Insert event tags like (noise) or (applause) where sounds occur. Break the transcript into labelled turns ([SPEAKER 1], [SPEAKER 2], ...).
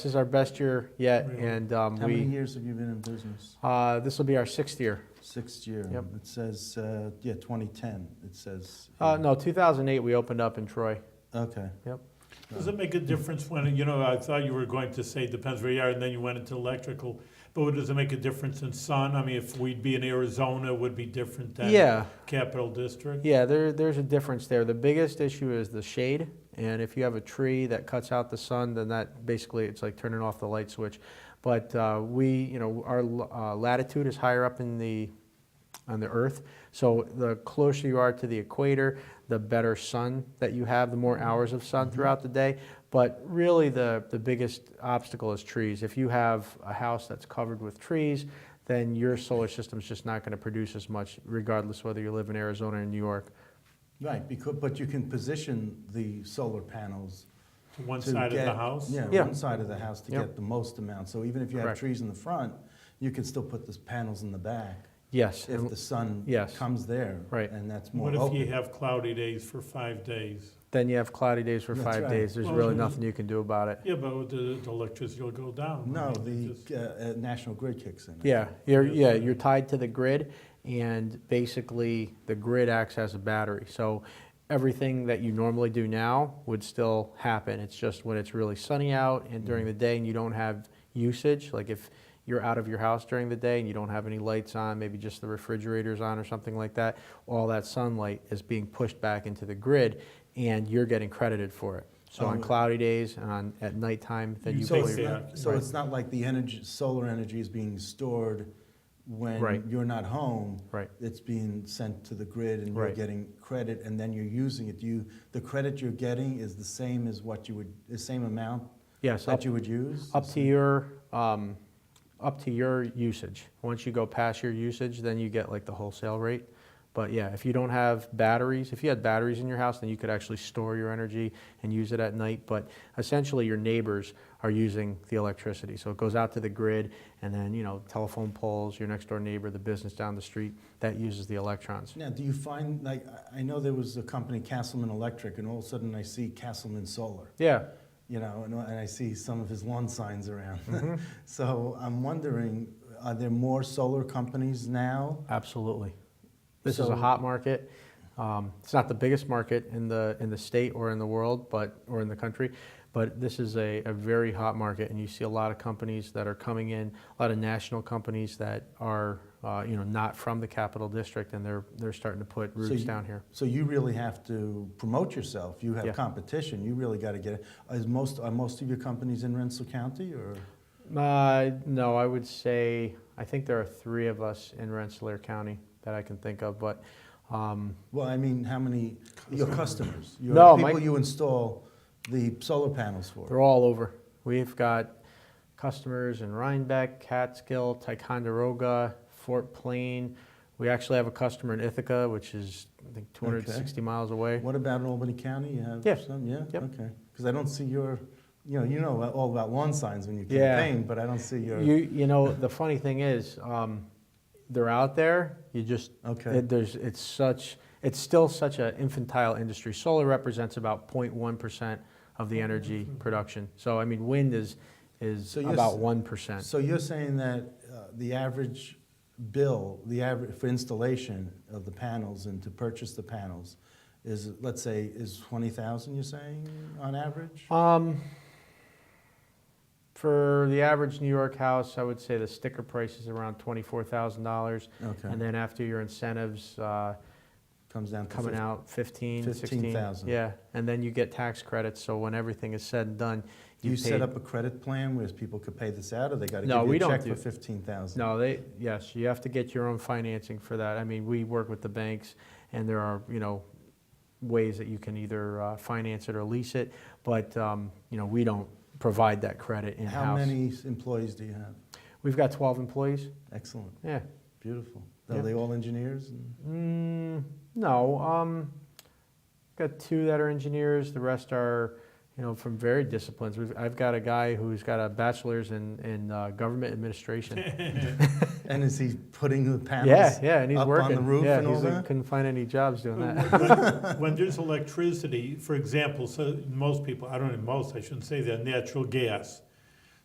[SPEAKER 1] This is our best year yet,
[SPEAKER 2] Really?
[SPEAKER 1] and um,
[SPEAKER 2] How many
[SPEAKER 1] we,
[SPEAKER 2] years have you been in business?
[SPEAKER 1] uh, this will be our sixth year.
[SPEAKER 2] Sixth year.
[SPEAKER 1] Yep.
[SPEAKER 2] It says, uh, yeah, 2010, it says.
[SPEAKER 1] Uh,
[SPEAKER 2] here.
[SPEAKER 1] no, 2008, we opened up in Troy.
[SPEAKER 2] Okay.
[SPEAKER 3] Does it make a difference when, you know, I thought you were going to say depends where you are, and then you went into electrical. But does it make a difference in sun? I mean, if we'd be in Arizona, it would be different than
[SPEAKER 1] Yeah,
[SPEAKER 3] Capital District?
[SPEAKER 1] yeah, there, there's a difference there. The biggest issue is the shade, and if you have a tree that cuts out the sun, then that, basically, it's like turning off the light switch. But uh, we, you know, our l- uh, latitude is higher up in the, on the earth, so the closer you are to the equator, the better sun that you have, the more
[SPEAKER 2] Mm-hmm.
[SPEAKER 1] hours of sun throughout the day. But really, the, the biggest obstacle is trees. If you have a house that's covered with trees, then your solar system's just not gonna produce as much, regardless whether you live in Arizona or New York.
[SPEAKER 2] Right, because, but you can position the solar panels.
[SPEAKER 3] To one
[SPEAKER 2] to
[SPEAKER 3] side of the
[SPEAKER 2] get-
[SPEAKER 3] house?
[SPEAKER 2] Yeah,
[SPEAKER 1] Yeah.
[SPEAKER 2] one side of the house to
[SPEAKER 1] Yep.
[SPEAKER 2] get the most amount. So even if you have
[SPEAKER 1] Correct.
[SPEAKER 2] trees in the front, you can still put those panels in the back
[SPEAKER 1] Yes,
[SPEAKER 2] if
[SPEAKER 1] and-
[SPEAKER 2] the sun
[SPEAKER 1] Yes.
[SPEAKER 2] comes there.
[SPEAKER 1] Right.
[SPEAKER 2] And that's more
[SPEAKER 3] What if you
[SPEAKER 2] open.
[SPEAKER 3] have cloudy days for five days?
[SPEAKER 1] then you have cloudy days for
[SPEAKER 2] That's
[SPEAKER 1] five
[SPEAKER 2] right.
[SPEAKER 1] days. There's
[SPEAKER 3] Well,
[SPEAKER 1] really
[SPEAKER 3] you-
[SPEAKER 1] nothing you can do about it.
[SPEAKER 3] Yeah, but the the electricity will go down.
[SPEAKER 2] No,
[SPEAKER 3] right?
[SPEAKER 2] the
[SPEAKER 3] Just-
[SPEAKER 2] (laughs) uh, uh, National Grid kicks in.
[SPEAKER 1] Yeah, you're,
[SPEAKER 3] Yes,
[SPEAKER 1] yeah,
[SPEAKER 3] sir.
[SPEAKER 1] you're tied to the grid, and basically, the grid acts as a battery. So everything that you normally do now would still happen. It's just when it's really sunny out and during the day and you don't have usage, like if you're out of your house during the day and you don't have any lights on, maybe just the refrigerator's on or something like that, all that sunlight is being pushed back into the grid, and you're getting credited for it. So on
[SPEAKER 2] Oh.
[SPEAKER 1] cloudy days and on, at nighttime, then
[SPEAKER 3] You
[SPEAKER 1] you
[SPEAKER 2] So
[SPEAKER 3] take
[SPEAKER 1] pay
[SPEAKER 2] it's
[SPEAKER 3] basically-
[SPEAKER 2] not, so
[SPEAKER 1] Right.
[SPEAKER 2] it's not like the energy, solar energy is being stored
[SPEAKER 1] Right.
[SPEAKER 2] when you're not home.
[SPEAKER 1] Right.
[SPEAKER 2] It's being sent to the grid and you're
[SPEAKER 1] Right.
[SPEAKER 2] getting credit and then you're using it. You, the credit you're getting is the same as what you would, the same amount
[SPEAKER 1] Yes, up
[SPEAKER 2] that you would use?
[SPEAKER 1] Up to your, um, up to your usage. Once you go past your usage, then you get like the wholesale rate. But yeah, if you don't have batteries, if you had batteries in your house, then you could actually store your energy and use it at night. But essentially, your neighbors are using the electricity. So it goes out to the grid, and then, you know, telephone poles, your next door neighbor, the business down the street, that uses the electrons.
[SPEAKER 2] Now, do you find, like, I- I know there was a company, Castleman Electric, and all of a sudden I see Castleman Solar.
[SPEAKER 1] Yeah,
[SPEAKER 2] you know, and, and I see some of his lawn signs around.
[SPEAKER 1] Mm-hmm.
[SPEAKER 2] (laughs) so I'm wondering, are there more solar companies now?
[SPEAKER 1] Absolutely. This is
[SPEAKER 2] So-
[SPEAKER 1] a hot market. Um, It's not the biggest market in the, in the state or in the world, but, or in the country, but this is a, a very hot market, and you see a lot of companies that are coming in, a lot of national companies that are, uh, you know, not from the Capital District, and they're, they're starting to put
[SPEAKER 2] So
[SPEAKER 1] roots
[SPEAKER 2] you-
[SPEAKER 1] down here.
[SPEAKER 2] So you really have to promote yourself. You have
[SPEAKER 1] Yeah.
[SPEAKER 2] competition. You really got to get it. Is most are most of your companies in Rensselaer County or?
[SPEAKER 1] Uh, No, I would say, I think there are three of us in Rensselaer County that I can think of, but, um,
[SPEAKER 2] Well, I mean, how many your customers? Your
[SPEAKER 1] No, my-
[SPEAKER 2] people you install the solar panels for.
[SPEAKER 1] They're all over. We've got customers in Rhinebeck, Catskill, Ticonderoga, Fort Plain. We actually have a customer in Ithaca, which is, I think, 260 miles away.
[SPEAKER 2] What about in Albany County? You have
[SPEAKER 1] Yeah.
[SPEAKER 2] some, yeah,
[SPEAKER 1] Yep.
[SPEAKER 2] okay. Because I don't see your, you know, you know all about lawn signs when you
[SPEAKER 1] Yeah.
[SPEAKER 2] campaign, but I don't see your.
[SPEAKER 1] You, you know, the funny thing is, um, they're out there, you just,
[SPEAKER 2] okay.
[SPEAKER 1] it- there's, it's such, it's still such an infantile industry. Solar represents about 0.1% of the energy production. So, I mean, wind is, is
[SPEAKER 2] Oh, So you're
[SPEAKER 1] about
[SPEAKER 2] s-
[SPEAKER 1] 1%.
[SPEAKER 2] So you're saying that uh, the average bill, the average for installation of the panels and to purchase the panels is, let's say, is 20,000, you're saying, on average?
[SPEAKER 1] Um, for the average New York house, I would say the sticker price is around twenty-four thousand dollars.
[SPEAKER 2] Okay,
[SPEAKER 1] And then after your incentives, uh,
[SPEAKER 2] comes down to
[SPEAKER 1] coming
[SPEAKER 2] 50.
[SPEAKER 1] out fifteen, sixteen.
[SPEAKER 2] 15,000.
[SPEAKER 1] Yeah, and then you get tax credits, so when everything is said and done,
[SPEAKER 2] Do you
[SPEAKER 1] you
[SPEAKER 2] set
[SPEAKER 1] paid.
[SPEAKER 2] up a credit plan where people could pay this out, or they got to
[SPEAKER 1] No,
[SPEAKER 2] give you
[SPEAKER 1] we
[SPEAKER 2] a
[SPEAKER 1] don't
[SPEAKER 2] check
[SPEAKER 1] do-
[SPEAKER 2] for 15,000?
[SPEAKER 1] No, they, yes, you have to get your own financing for that. I mean, we work with the banks, and there are, you know, ways that you can either uh, finance it or lease it, but, um, you know, we don't provide that credit in-house.
[SPEAKER 2] How many employees do you have?
[SPEAKER 1] We've got twelve employees,
[SPEAKER 2] Excellent,
[SPEAKER 1] yeah.
[SPEAKER 2] beautiful.
[SPEAKER 1] Yeah.
[SPEAKER 2] Are they all engineers? and-
[SPEAKER 1] Mm, no, um, got two that are engineers. The rest are, you know, from varied disciplines. We've, I've got a guy who's got a bachelor's in, in uh, government
[SPEAKER 2] (laughs)
[SPEAKER 1] administration.
[SPEAKER 2] And is he putting the panels?
[SPEAKER 1] yeah, yeah, and he's
[SPEAKER 2] up on
[SPEAKER 1] working
[SPEAKER 2] the roof
[SPEAKER 1] yeah,
[SPEAKER 2] and all
[SPEAKER 1] he's like,
[SPEAKER 2] that?
[SPEAKER 1] couldn't find any jobs doing that.
[SPEAKER 3] When- When there's electricity, for example, so most people, I don't know, most, I shouldn't say that, natural gas.